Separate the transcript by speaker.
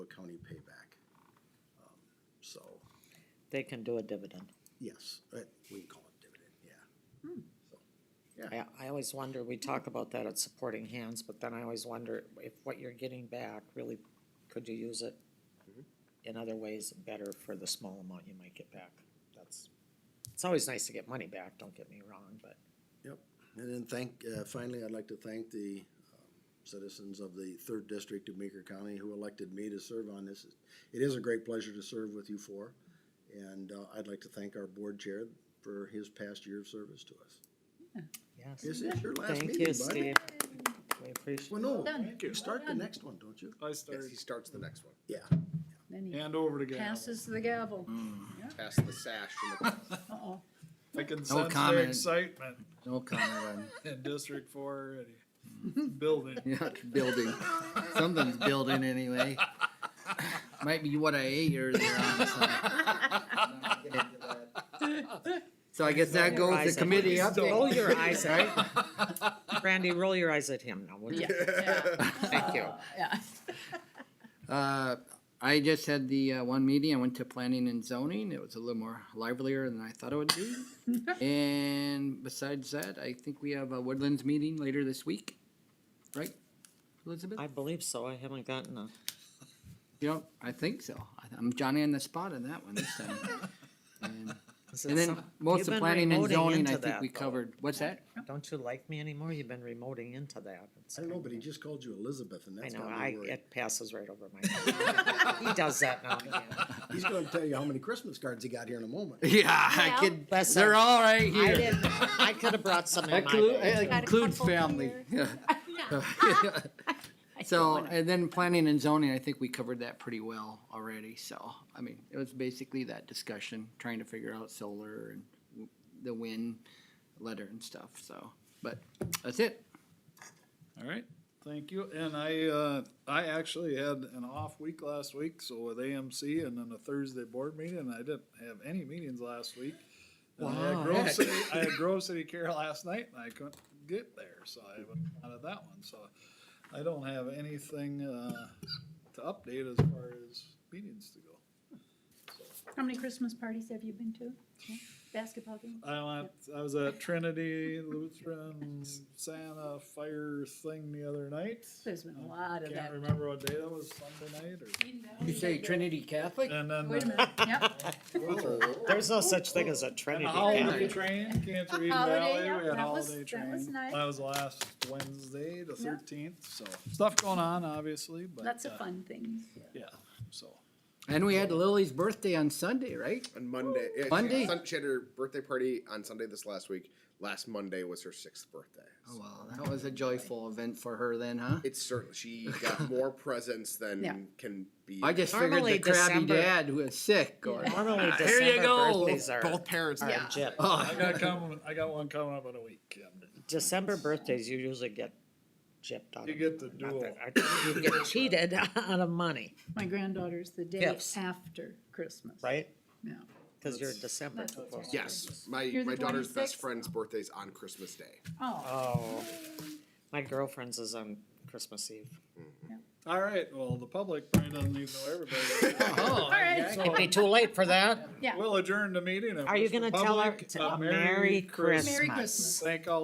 Speaker 1: County payback. Um, So,
Speaker 2: They can do a dividend.
Speaker 1: yes, uh, we can call it dividend, yeah.
Speaker 2: Hmm.
Speaker 1: So,
Speaker 2: I, I always wonder, we talk about that at supporting hands, but then I always wonder if what you're getting back, really, could you use it
Speaker 1: Mm-hmm.
Speaker 2: in other ways better for the small amount you might get back? That's, it's always nice to get money back, don't get me wrong, but
Speaker 1: Yep, and then thank, uh, finally, I'd like to thank the um, citizens of the third district of Meeker County who elected me to serve on this. It is a great pleasure to serve with you four, and uh, I'd like to thank our board chair for his past year of service to us.
Speaker 2: yes.
Speaker 1: This is your last
Speaker 2: Thank
Speaker 1: meeting,
Speaker 2: you,
Speaker 1: buddy.
Speaker 2: Steve. We appreciate,
Speaker 1: Well, no,
Speaker 3: Done.
Speaker 1: you start the next one, don't you?
Speaker 4: I
Speaker 5: Yes,
Speaker 4: started.
Speaker 5: he starts the next one.
Speaker 1: Yeah,
Speaker 3: Then he
Speaker 4: Hand over to Gavin.
Speaker 3: passes the gavel.
Speaker 5: Pass the sash. and the-
Speaker 3: Uh-oh.
Speaker 4: I can sense their
Speaker 6: comment.
Speaker 4: excitement
Speaker 6: No comment
Speaker 4: in District Four already. Building.
Speaker 6: on, yeah, it's building, something's building anyway. Might be what I ate earlier on, so. So I guess that
Speaker 2: Roll your
Speaker 6: goes
Speaker 2: eyes
Speaker 6: to
Speaker 2: at
Speaker 6: committee
Speaker 2: him.
Speaker 6: update.
Speaker 2: Roll your eyes at Randy, roll your eyes at him now, would you?
Speaker 3: Yeah, yeah,
Speaker 2: Thank you.
Speaker 3: yeah.
Speaker 6: Uh, I just had the uh, one meeting. I went to planning and zoning. It was a little more livelier than I thought it would be. and besides that, I think we have a woodlands meeting later this week, right, Elizabeth?
Speaker 2: I believe so, I haven't gotten a,
Speaker 6: you know, I think so. I, I'm Johnny on the spot on that one this time. and,
Speaker 2: is
Speaker 6: and
Speaker 2: it
Speaker 6: then
Speaker 2: some,
Speaker 6: most
Speaker 2: you've
Speaker 6: of
Speaker 2: been
Speaker 6: planning and
Speaker 2: remoting
Speaker 6: zoning, I
Speaker 2: into
Speaker 6: think
Speaker 2: that,
Speaker 6: we
Speaker 2: though.
Speaker 6: covered. What's that?
Speaker 2: don't you like me anymore? You've been remoting into that. It's
Speaker 1: I don't know,
Speaker 2: kinda-
Speaker 1: but he just called you Elizabeth, and
Speaker 2: I
Speaker 1: that's
Speaker 2: know,
Speaker 1: got
Speaker 2: I,
Speaker 1: me worried.
Speaker 2: it passes right over my head. He does that now and again.
Speaker 1: He's gonna tell you how many Christmas cards he got here in a moment.
Speaker 6: Yeah, I
Speaker 3: Well,
Speaker 6: could.
Speaker 2: Listen,
Speaker 6: They're all right
Speaker 2: I
Speaker 6: here.
Speaker 2: didn't, I could have brought some in my
Speaker 6: Inclu-
Speaker 2: bag.
Speaker 6: uh,
Speaker 3: Got a
Speaker 6: includes
Speaker 3: couple
Speaker 6: family.
Speaker 3: I don't
Speaker 6: So,
Speaker 3: wanna-
Speaker 6: and then planning and zoning, I think we covered that pretty well already, so, I mean, it was basically that discussion, trying to figure out solar and w- the wind letter and stuff, so, but that's it.
Speaker 4: All right, thank you. And I, uh, I actually had an off week last week, so with AMC and then a Thursday board meeting, I didn't have any meetings last week. And I had
Speaker 2: Wow.
Speaker 4: Grove City, I had Grove City Care last night and I couldn't get there, so I went out of that one, so I don't have anything, uh, to update as far as meetings to go.
Speaker 3: How many Christmas parties have you been to? Yeah, Basketball game?
Speaker 4: I went, I was at Trinity Lutheran Santa Fire thing the other night.
Speaker 3: There's been a lot of
Speaker 4: Can't
Speaker 3: that.
Speaker 4: remember what day that was, Sunday night or?
Speaker 6: You say Trinity Catholic?
Speaker 4: And then
Speaker 3: Wait a
Speaker 4: the
Speaker 3: minute, yep,
Speaker 2: There's no such thing as a
Speaker 4: and
Speaker 2: Trinity
Speaker 4: the
Speaker 2: Catholic.
Speaker 4: holiday train, Cancer Eden
Speaker 3: Holiday,
Speaker 4: Valley,
Speaker 3: yeah,
Speaker 4: we had
Speaker 3: that was-
Speaker 4: holiday
Speaker 3: that
Speaker 4: train.
Speaker 3: was nice.
Speaker 4: That was last Wednesday, the
Speaker 3: Yeah.
Speaker 4: thirteenth, so stuff going on, obviously, but.
Speaker 3: lots of
Speaker 4: uh,
Speaker 3: fun things.
Speaker 4: Yeah, so,
Speaker 6: And we had Lily's birthday on Sunday, right?
Speaker 5: On Monday. yeah, she-
Speaker 6: Monday?
Speaker 5: Sun- She had her birthday party on Sunday this last week. Last Monday was her sixth birthday.
Speaker 6: Oh, well, that was a joyful event for her then, huh?
Speaker 5: It's certainly, she got more presents than
Speaker 3: Yeah.
Speaker 5: can be.
Speaker 6: I just figured
Speaker 2: Normally
Speaker 6: the crabby
Speaker 2: December-
Speaker 6: dad who was sick or.
Speaker 2: Normally
Speaker 6: Here you
Speaker 2: December
Speaker 6: go. Oh,
Speaker 2: birthdays are,
Speaker 5: Both parents.
Speaker 2: are
Speaker 5: Yeah.
Speaker 2: legit.
Speaker 4: I got coming, I got one coming up in a week. and
Speaker 2: December birthdays, you usually get gypped on.
Speaker 4: You get the dual.
Speaker 2: You get cheated out of money,
Speaker 3: My granddaughter's the day
Speaker 2: Gifts.
Speaker 3: after Christmas.
Speaker 2: right?
Speaker 3: Yeah.
Speaker 2: Cause you're December.
Speaker 3: That's-
Speaker 2: too close.
Speaker 5: Yes, my,
Speaker 3: You're the
Speaker 5: my daughter's
Speaker 3: 26th?
Speaker 5: best friend's birthday's on Christmas Day.
Speaker 3: Oh,
Speaker 2: Oh, my girlfriend's is on Christmas Eve.
Speaker 4: All right, well, the public probably doesn't even know everybody. Uh-huh.
Speaker 3: all right,
Speaker 2: It'd be too late for that.
Speaker 3: yeah.
Speaker 4: We'll adjourn the meeting. and
Speaker 2: Are you
Speaker 4: wish the
Speaker 2: gonna tell her
Speaker 4: public
Speaker 2: to-
Speaker 4: a
Speaker 2: a Merry
Speaker 3: Merry
Speaker 2: Christmas.
Speaker 3: Christmas.
Speaker 4: Thank all